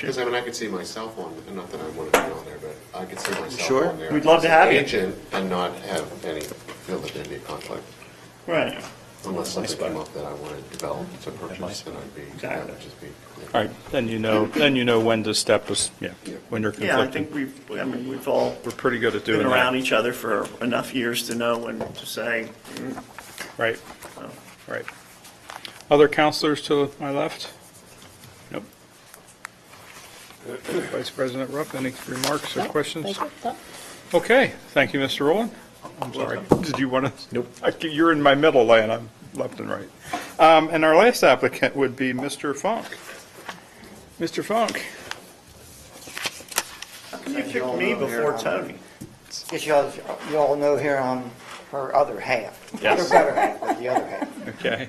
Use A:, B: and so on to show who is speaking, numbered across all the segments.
A: Because I mean, I could see myself on, not that I want to be on there, but I could see myself
B: Sure.
A: on there.
C: We'd love to
A: as an
C: have you.
A: Agent and not have any, feel that there'd be a conflict
C: Right.
A: unless
B: my
A: something came
B: spot.
A: up that I wanted to develop to purchase and I'd be, that
C: Exactly.
A: would just be.
D: All right, then you know, then you know when to step, as- yeah, when you're
C: Yeah, I
D: conflicted.
C: think we've, I mean, we've all
D: We're pretty good at
C: been
D: doing
C: around
D: that.
C: each other for enough years to know when to say,
D: Right,
C: so.
D: right. Other counselors to my left? Nope. Vice President Ruff, any remarks or questions? Okay, thank you, Mr. Rowland. I'm sorry, did you want to? Nope. You're in my middle lane, I'm left and right. Um, And our last applicant would be Mr. Funk. Mr. Funk,
C: You picked me before Tony.
E: Because y'all, you all know here I'm her other half.
C: Yes.
E: Her better half, but the other half.
D: okay.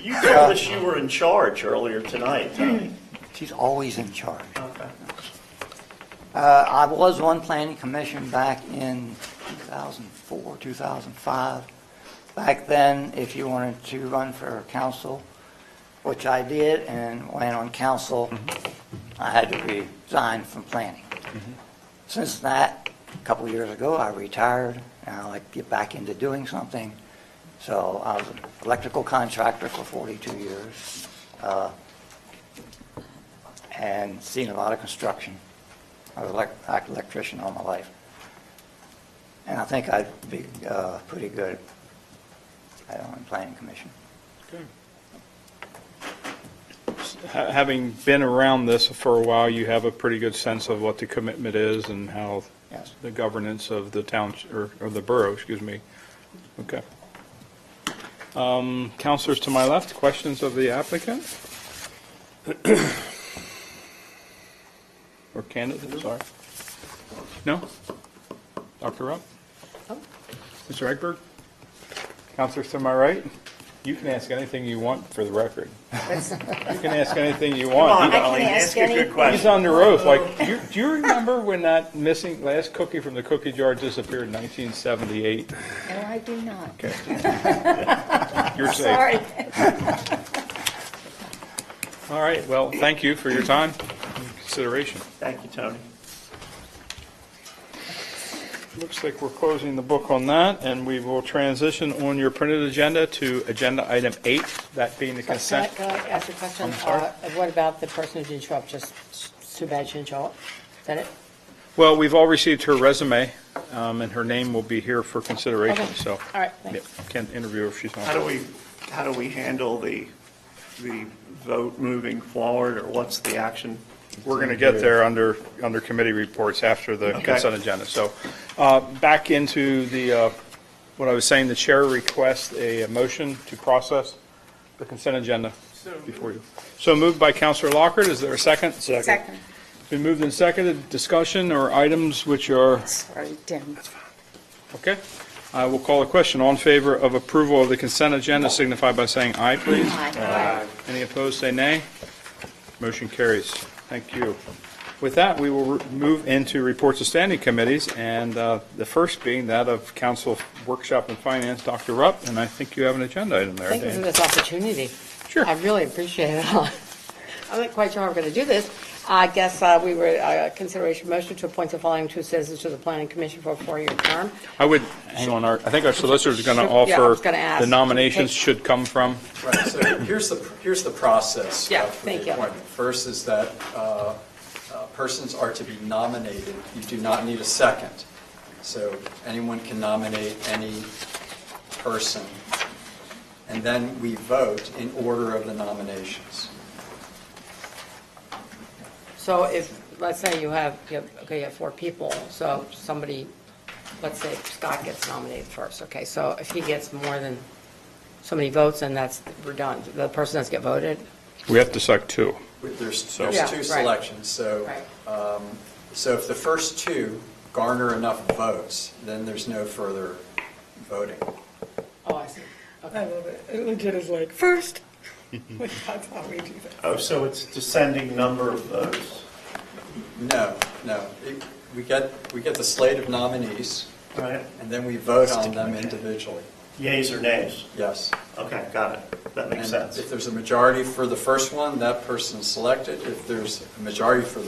C: You told us you were in charge earlier tonight, Tony.
E: She's always in charge.
C: Okay.
E: Uh, I was on planning commission back in 2004, 2005. Back then, if you wanted to run for council, which I did, and when on council, I had to resign from planning. Since that, a couple years ago, I retired, and I like to get back into doing something. So I was an electrical contractor for 42 years, uh, and seen a lot of construction. I was elec- like electrician all my life. And I think I'd be uh, pretty good at on planning commission.
D: Ha- Having been around this for a while, you have a pretty good sense of what the commitment is and how
E: Yes.
D: the governance of the town, or or the borough, excuse me. Okay. Um, Counselors to my left, questions of the applicant? Or candidate, sorry. No? Dr. Rupp?
C: Oh.
D: Mr. Egbert? Counselors to my right? You can ask anything you want for the record. You can ask anything you want.
C: Come on,
D: You-
C: Colleen,
F: ask
C: ask a
F: any-
C: good
D: He's
C: question.
D: on the roof, like, do you, do you remember when that missing, last cookie from the cookie jar disappeared in 1978?
F: No, I do not.
D: You're safe.
F: Sorry.
D: All right, well, thank you for your time and consideration.
C: Thank you, Tony.
D: Looks like we're closing the book on that, and we will transition on your printed agenda to agenda item eight, that being the consent.
F: Can I can I ask a question? Uh, What about the person who didn't show up? Just it's too bad she didn't show up? Is that it?
D: Well, we've all received her resume, um, and her name will be here for consideration,
F: Okay.
D: so.
F: All right,
D: yeah,
F: thanks.
D: Can't interview her if she's
C: How
D: not.
C: do we, how do we handle the, the vote moving forward, or what's the action?
D: We're going to get there under, under committee reports after the
C: Okay.
D: consent agenda. So uh, back into the, uh, what I was saying, the chair requests a motion to process the consent agenda before you. So moved by Counselor Lockhart, is there a second?
F: Second.
D: Been moved and seconded, discussion or items which are,
F: Sorry, Tim.
D: okay? I will call a question. All in favor of approval of the consent agenda signify by saying aye, please.
F: Aye.
D: Any opposed, say nay. Motion carries. Thank you. With that, we will re- move into reports of standing committees, and uh, the first being that of Council Workshop and Finance, Dr. Rupp, and I think you have an agenda item there,
F: Thank you for
D: Dan.
F: this opportunity.
D: Sure.
F: I really appreciate it. I'm not quite sure how we're going to do this. I guess uh, we were, uh, consideration motion to appoint the following two citizens to the planning commission for a four-year term.
D: I would, hang on, our- I think our solicitor's going to
F: Should- yeah, I was
D: offer,
F: gonna ask.
D: the nominations
F: Take-
D: should come from,
G: Right, so here's the, here's the process.
F: Yeah,
G: uh, for the
F: thank you.
G: appointment. First is that uh, uh, persons are to be nominated. You do not need a second. So anyone can nominate any person. And then we vote in order of the nominations.
F: So if, let's say you have, you have- okay, you have four people, so somebody, let's say Scott gets nominated first, okay? So if he gets more than so many votes, then that's, we're done. The person doesn't get voted?
D: we have to select two.
G: There's,
F: Yeah,
G: there's two
F: right.
G: selections, so, um, so if the first two garner enough votes, then there's no further voting.
F: Oh, I see. Okay.
H: I love it. It legit is like, first. Like, That's how we do that.
C: Oh, so it's descending number of votes.
G: No, no. It- We get, we get the slate of nominees,
C: Right.
G: and then we vote on them individually.
C: Yays or nays?
G: Yes.
C: Okay, got it. That makes
G: And
C: sense.
G: If there's a majority for the first one, that person's selected. If there's a majority for the